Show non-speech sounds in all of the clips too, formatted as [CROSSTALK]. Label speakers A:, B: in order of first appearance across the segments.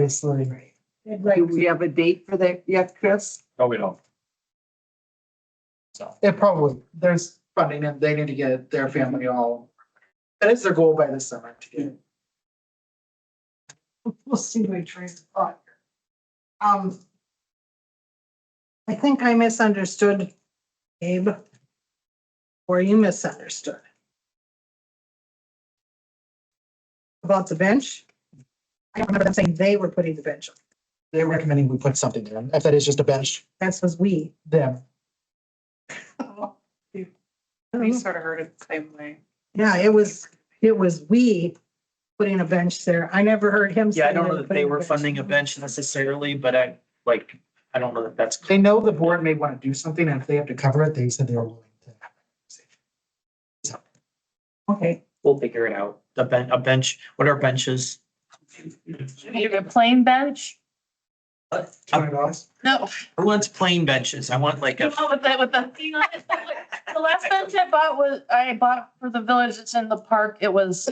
A: obviously.
B: Do we have a date for that yet, Chris?
C: No, we don't. So.
A: It probably, there's funding and they need to get their family all, that is their goal by this summer to get.
D: We'll see my train of thought. Um. I think I misunderstood Abe. Or you misunderstood. About the bench. I don't remember them saying they were putting the bench. up.
A: They're recommending we put something there. If that is just a bench,
D: That was we.
A: them.
E: We sort of heard it the same way.
D: Yeah, it was, it was we putting a bench there. I never heard him.
F: Yeah, I
D: say
F: don't
D: they were
F: know that they
D: putting
F: were funding a bench necessarily, but I, like, I don't know that that's.
A: They know the board may want to do something and if they have to cover it, they said they were willing to. have that
D: Okay,
F: We'll figure it out. The ben, a bench, what are benches?
E: Need a plain bench?
A: conversation. Turn it off.
E: No, [LAUGHS]
F: Who wants plain benches? I want like
E: the
F: a,
E: one with the, with the thing on it. The last bench I bought was, I bought for the village, it's in the park, it was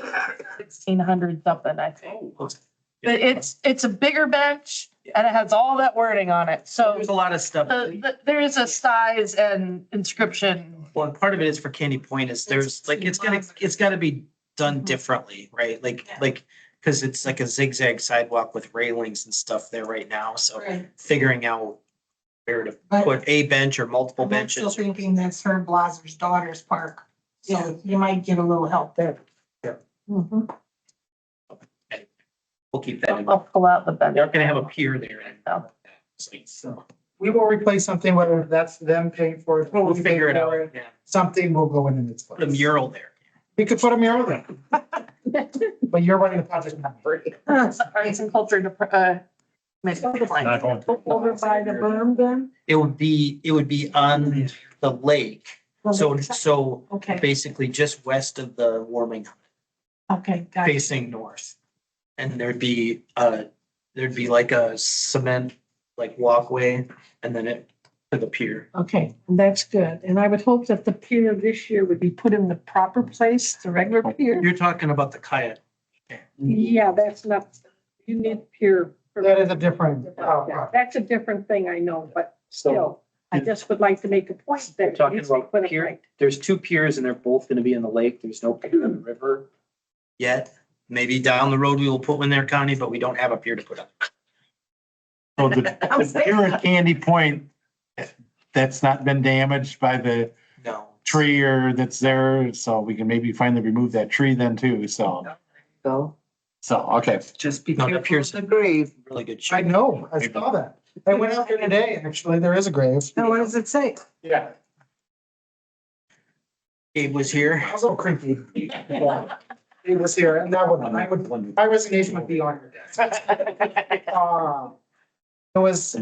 E: sixteen hundred something, I think. But it's, it's a bigger bench and it has all that wording on it, so
F: there's a lot of stuff.
E: the, the, there is a size and inscription.
F: Well, and part of it is for Candy Point is there's like, it's Mm-hmm. gonna, it's gotta be done differently, right? Like, like, cause it's like a zigzag sidewalk with railings and stuff there right now, so figuring out where to
G: But-
F: put a bench or multiple
G: I'm still
F: benches.
G: thinking that's her Blazer's daughter's park,
D: Yeah.
G: so you might get a little help there.
E: Mm-hmm.
F: We'll keep that in mind.
E: I'll pull out the bench.
F: They're gonna have a pier there. and- It's like,
A: So we will replace something, whether that's them paying for it.
F: We'll
A: we pay
F: figure it
A: for
F: out. Yeah.
A: Something will go in in its place.
F: Put a mural there.
A: We could put a mural there. [LAUGHS] But you're running the project now.
E: Arts and culture, dep- uh,
C: Not going to.
G: Over by the berm then?
F: It would be, it would be on the lake. So, so
G: Okay,
F: basically just west of the warming,
G: okay, got it.
F: facing north. And there'd be, uh, there'd be like a cement, like walkway and then it to the pier.
G: Okay, that's good. And I would hope that the pier this year would be put in the proper place, the regular pier.
F: You're talking about the kayak.
H: Yeah, that's not, you need peer.
A: That is a different.
F: Oh,
A: uh,
H: Yeah, That's a different thing, I know, but still, I
F: Yeah.
H: just would like to make a point that.
F: You're talking
H: needs to be
F: about
H: put in
F: peer?
H: right.
I: there's two piers and they're both gonna be in the lake. There's no pier in the river.
F: Yet, maybe down the road we will put one there, Connie, but we don't have a pier to put up.
J: So the, the pier at Candy Point, that's not been damaged by the
F: No.
J: tree or that's there, so we can maybe finally remove that tree then too, so,
B: Go.
J: so, okay.
B: Just be
F: No, that
B: careful of
F: appears-
B: the grave.
F: Really good shape.
A: I know, I saw that. I went out there today, actually, there is a grave.
D: now what does it say?
A: Yeah.
F: Gabe was here.
A: That was a little creepy. It was here, and that one, I would, my resignation would be on your desk. Um, It was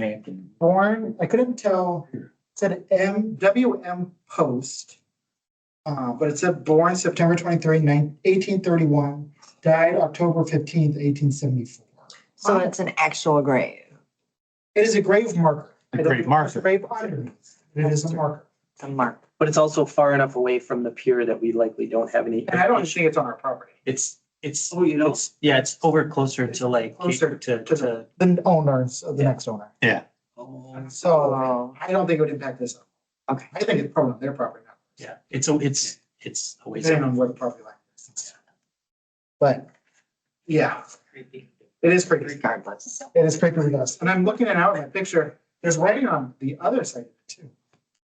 A: born, I couldn't tell, it said M, W M Post. Uh, but it said born September 23, 1831, died October fifteenth, eighteen seventy-four.
B: So it's an actual grave.
A: It is a grave marker.
J: A grave marker.
A: Grave underneath, it is a marker.
B: It's a mark.
I: But it's also far enough away from the pier that we likely don't have any.
A: And I don't think it's on our property.
F: It's, it's,
I: Oh, you know,
F: it's, yeah, it's over closer to like,
A: Closer
F: to, to.
A: The owners of the
F: Yeah.
A: next owner.
F: Oh.
A: So uh,
B: Oh,
A: I don't think it would impact this.
B: Okay.
A: I think it's probably their property now,
F: Yeah, it's, a- it's, it's a ways.
A: depending on where the property line is. But, yeah, it is pretty, it
B: regardless.
A: is pretty ridiculous. And I'm looking at out my picture, there's writing on the other side of it too.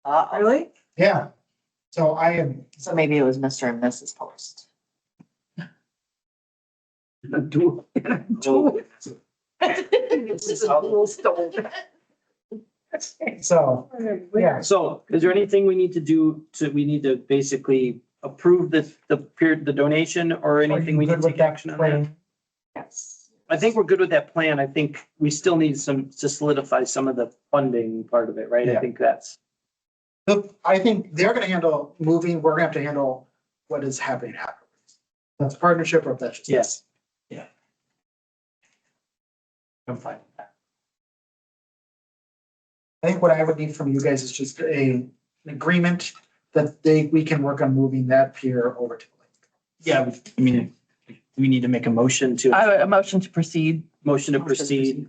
B: Uh,
D: Really?
A: Yeah. So I am,
B: so maybe it was Mr. and Mrs. Post.
I: do, do.
A: so, yeah,
I: So is there anything we need to do to, we need to basically approve this, the pier, the donation or anything we
A: good
I: need
A: with
I: to take
A: that
I: action on that?
A: plan?
B: Yes.
I: I think we're good with that plan. I think we still need some, to solidify some of the funding part of it, right?
A: Yeah.
I: I think that's.
A: Look, I think they're gonna handle moving, we're gonna have to handle what is happening afterwards. That's partnership or if that's just.
I: Yes.
F: I'm fine. with that.
A: I think what I would need from you guys is just a, an agreement that they, we can work on moving that pier over to. the lake.
F: Yeah, I mean,
I: we need to make a motion to,
K: I, a motion to proceed.
I: motion to
E: Motion to
I: proceed